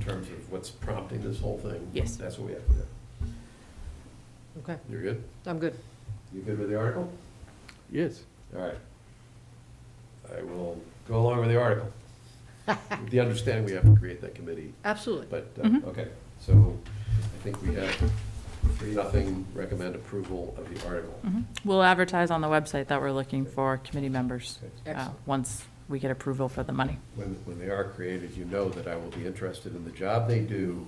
terms of what's prompting this whole thing. Yes. That's what we have to do. Okay, You're good? I'm good. You good with the article? Yes. All right. I will go along with the article. With the understanding we have to create that committee, Absolutely. but, Mm-hmm. uh, okay. So I think we have three, nothing, recommend approval of the article. Mhm. We'll advertise on the website that we're looking for committee members, Okay. uh, Excellent. once we get approval for the money. When, when they are created, you know that I will be interested in the job they do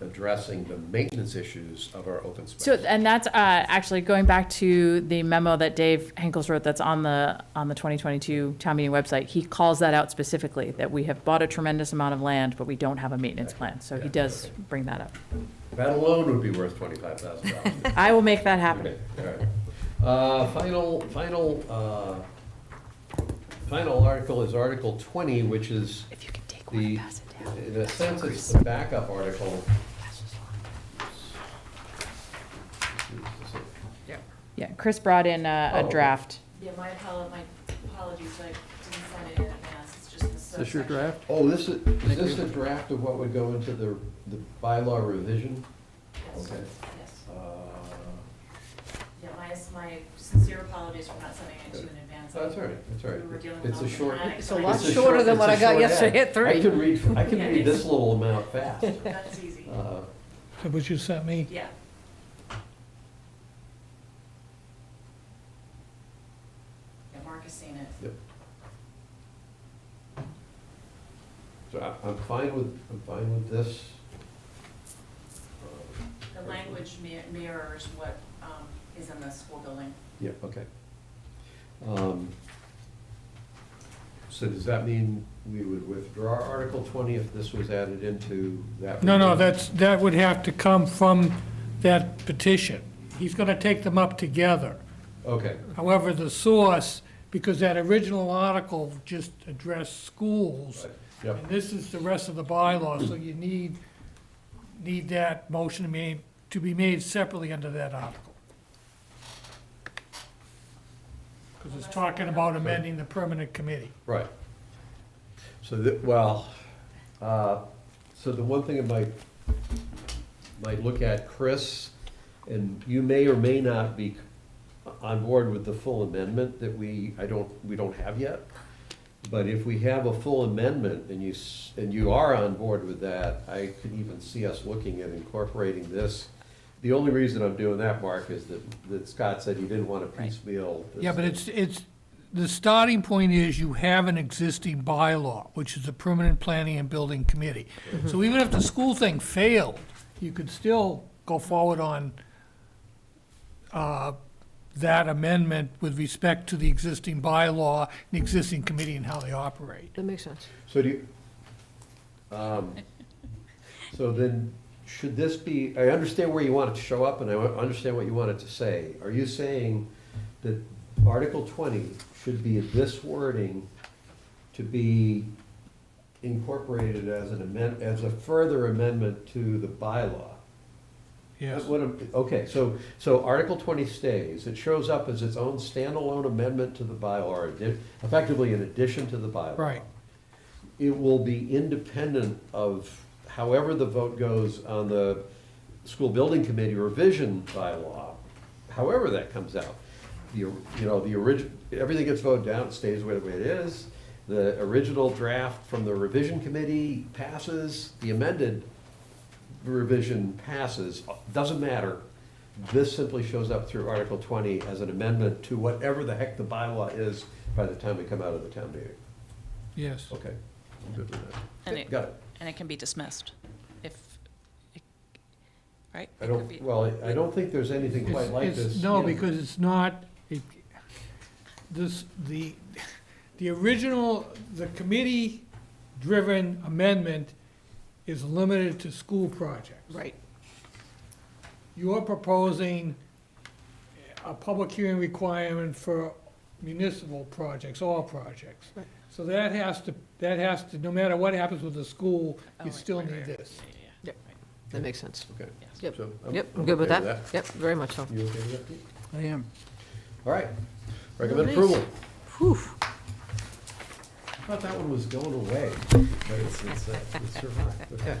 addressing the maintenance issues of our open space. So, and that's, uh, actually going back to the memo that Dave Henkels wrote that's on the, on the 2022 town meeting website. He calls that out specifically, that we have bought a tremendous amount of land, but we don't have a maintenance plan. So he Yeah, does okay. bring that up. That alone would be worth twenty-five thousand dollars. I will make that happen. Okay, all right. Uh, Final, final, uh, final article is Article 20, which is If you can take one and the, pass it down. in a sense, it's the backup article. Pass this along. Yeah. Yeah, Chris brought in Oh, a, okay. a draft. Yeah, my apolo- my apologies, I didn't send it in advance, it's just the Is this your subsection. draft? Oh, this is, is this the draft of what would go into the, the bylaw revision? Yes, Okay. Yes, Uh, yeah, my, my sincere apologies for not sending it to you in advance. That's all right, that's all We were right. dealing with It's a all short. kinds of It's a lot it's things. shorter short- than what it's a I got short yesterday ad. at three. I can read, I can Yeah, read it's- this little amount fast. That's easy, Uh, That what you sent me? yeah. Yeah, Mark has seen it. Yep. So I- I'm fine with, I'm fine with this. Um, The language mir- mirrors what um, is in the school building. Yeah, okay. Um, So does that mean we would withdraw Article 20 if this was added into that? No, no, revision? that's, that would have to come from that petition. He's gonna take them up together. Okay, However, the source, because that original article just addressed schools, right, yep, and this is the rest of the bylaw, so you need, need that motion to be, to be made separately under that article. Because it's talking about amending the permanent committee. right. So that, well, uh, so the one thing I might, might look at, Chris, and you may or may not be on board with the full amendment that we, I don't, we don't have yet. But if we have a full amendment and you, s- and you are on board with that, I could even see us looking at incorporating this. The only reason I'm doing that, Mark, is that, that Scott said he didn't want to piecemeal. this. Yeah, but it's, it's, the starting point is you have an existing bylaw, which is the Permanent Planning and Building Committee. So even if the school thing failed, you could still go forward on uh, that amendment with respect to the existing bylaw, the existing committee and how they operate. That makes sense. So do you, um, so then, should this be, I understand where you want it to show up, and I understand what you want it to say. Are you saying that Article twenty should be this wording to be incorporated as an amend, as a further amendment to the bylaw? That's what I'm- Okay, so, so Article twenty stays, it shows up as its own standalone amendment to the bylaw, or addi- effectively in addition to the bylaw Right. it will be independent of however the vote goes on the school building committee revision bylaw, however that comes out. The, you know, the original, everything gets voted down, it stays the way the way it is. The original draft from the revision committee passes, the amended revision passes, doesn't matter. This simply shows up through Article twenty as an amendment to whatever the heck the bylaw is by the time we come out of the town meeting. Yes. Okay, I'm good with that. And it- Got it. And it can be dismissed if, right? I don't, well, I- I don't think there's anything quite It's- like it's- this. No, Yeah. because it's not, it, this, the, the original, the committee-driven amendment is limited to school projects. Right. You're proposing a public hearing requirement for municipal projects, all projects. Right. So that has to, that has to, no matter what happens with the school, Oh, you right, still right, need right, right, this. yeah, yeah, Yep. yeah. Right. That makes sense. Okay. Yep. So I'm- Yep, I'm I'm good with okay that. Yep, very much so. You okay with that? Pete? I am. All right. Recommend Nice. approval. Whew. I thought that one was going away, but it's, it's, uh, it survived. Okay.